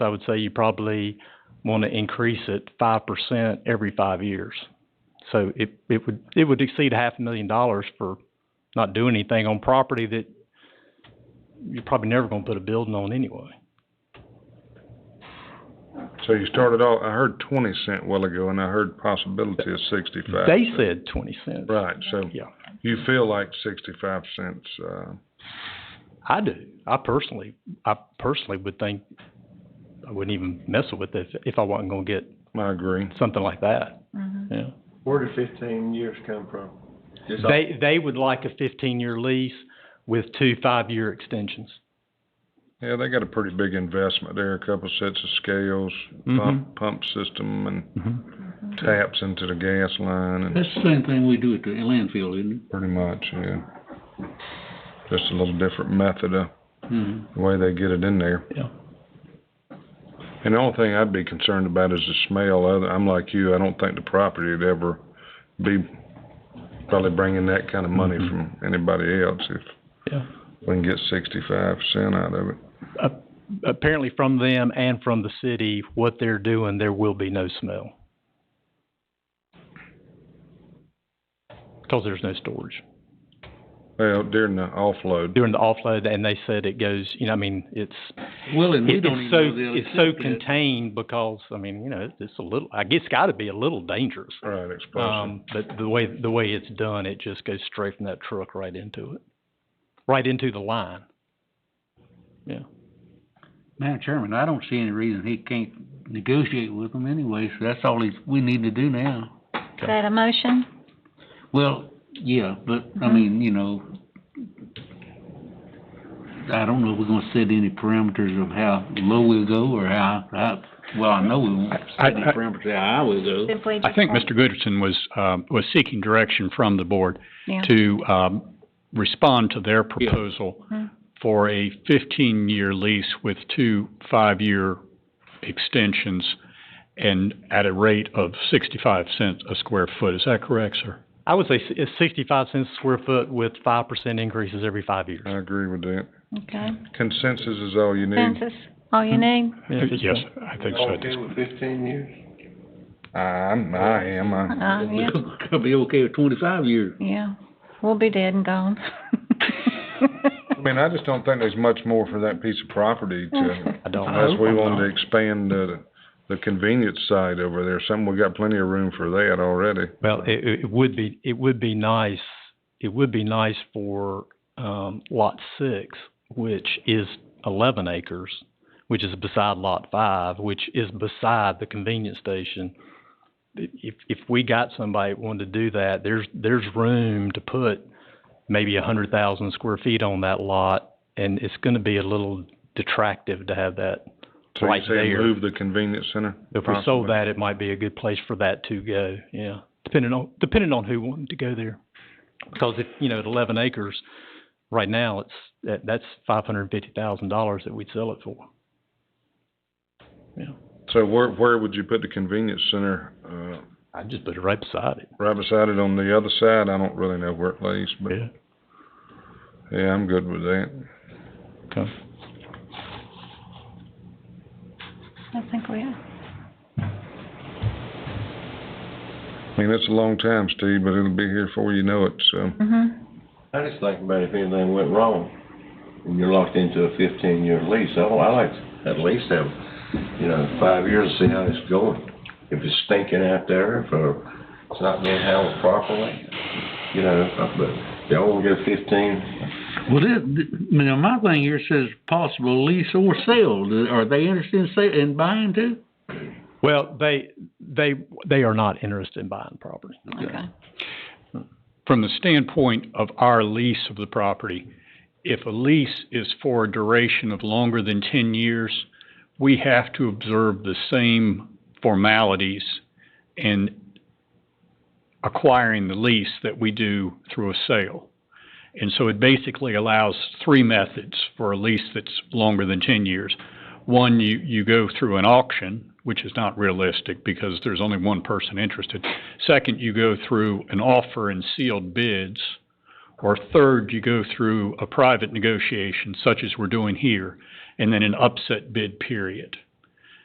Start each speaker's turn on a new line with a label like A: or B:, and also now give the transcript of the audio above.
A: So I would say you probably want to increase it five percent every five years. So it, it would, it would exceed half a million dollars for not doing anything on property that you're probably never gonna put a building on anyway.
B: So you started off, I heard twenty cent a while ago, and I heard possibility of sixty-five.
A: They said twenty cents.
B: Right, so
A: Yeah.
B: you feel like sixty-five cents, uh,
A: I do. I personally, I personally would think I wouldn't even mess with it if I wasn't gonna get
B: I agree.
A: something like that. Yeah.
C: Where did fifteen years come from? Just off-
A: They, they would like a fifteen-year lease with two five-year extensions.
B: Yeah, they got a pretty big investment there, a couple sets of scales,
A: Mm-hmm.
B: pump, pump system, and taps into the gas line, and
D: That's the same thing we do at the landfill, isn't
B: pretty much, yeah. Just a little different method of
D: it? Mhm.
B: the way they get it in there.
A: Yeah.
B: And the only thing I'd be concerned about is the smell. Other, I'm like you, I don't think the property would ever be probably bringing that kind of money
A: Mm-hmm.
B: from anybody else if
A: Yeah.
B: we can get sixty-five percent out of it.
A: Apparently from them and from the city, what they're doing, there will be no smell. Cause there's no storage.
B: Well, during the offload,
A: During the offload, and they said it goes, you know, I mean, it's,
D: Well, and we
A: It-
D: don't even
A: It's so,
D: know they'll
A: it's so
D: accept that.
A: contained because, I mean, you know, it's- it's a little, I guess it's gotta be a little dangerous.
B: right, explosive.
A: Um, but the way, the way it's done, it just goes straight from that truck right into it, right into the line.
D: Madam Chairman, I don't see any reason he can't negotiate with them anyway, so that's all he's, we need to do now.
E: Is that a motion?
D: Well, yeah, but, I mean, you know, I don't know if we're gonna set any parameters of how low we'll go or how, how, well, I know we won't
F: I-
D: set any
F: I-
D: parameters how high we'll go.
E: Simply
F: I think
E: just-
F: Mr. Goodson was, um, was seeking direction from the board
E: Yeah.
F: to, um, respond to their proposal for a fifteen-year lease with two five-year extensions and at a rate of sixty-five cents a square foot. Is that correct, sir?
A: I would say s- it's sixty-five cents a square foot with five percent increases every five years.
B: I agree with that.
E: Okay,
B: Consensus is all you need.
E: census, all you need?
F: Yes, I think so.
C: Okay with fifteen years?
B: I'm, I am, I,
F: Hmm.
E: Uh, yeah,
D: I'll be okay with twenty-five years.
E: yeah, we'll be dead and gone.
B: I mean, I just don't think there's much more for that piece of property to,
A: I don't know.
B: unless we wanted to expand the, the convenience side over there. Some, we got plenty of room for that already.
A: Well, it, it- it would be, it would be nice, it would be nice for, um, lot six, which is eleven acres, which is beside lot five, which is beside the convenience station. If, if we got somebody that wanted to do that, there's, there's room to put maybe a hundred thousand square feet on that lot, and it's gonna be a little detractive to have that
B: So you
A: right
B: say
A: there.
B: move the convenience center?
A: If we
B: possibly?
A: sold that, it might be a good place for that to go, yeah, depending on, depending on who wanted to go there. Because if, you know, at eleven acres, right now, it's, that, that's five hundred and fifty thousand dollars that we'd sell it for.
B: So where, where would you put the convenience center? Uh,
A: I'd just put it right beside it.
B: right beside it on the other side? I don't really know where it lays, but
A: Yeah.
B: yeah, I'm good with that.
A: Okay.
E: I think we are.
B: I mean, it's a long time, Steve, but it'll be here before you know it, so.
E: Mm-hmm,
C: I just think about if anything went wrong and you're locked into a fifteen year lease, I, I like to at least have, you know, five years to see how it's going. If it's stinking out there, if uh, it's not being handled properly, you know, uh, but y'all wanna go fifteen,
D: Well, this, you know, my thing here says possible lease or sale. Do- Are they interested in sa- in buying too?
A: Well, they, they, they are not interested in buying property.
E: okay.
F: From the standpoint of our lease of the property, if a lease is for a duration of longer than ten years, we have to observe the same formalities in acquiring the lease that we do through a sale. And so it basically allows three methods for a lease that's longer than ten years. One, you, you go through an auction, which is not realistic because there's only one person interested. Second, you go through an offer and sealed bids. Or third, you go through a private negotiation such as we're doing here, and then an upset bid period.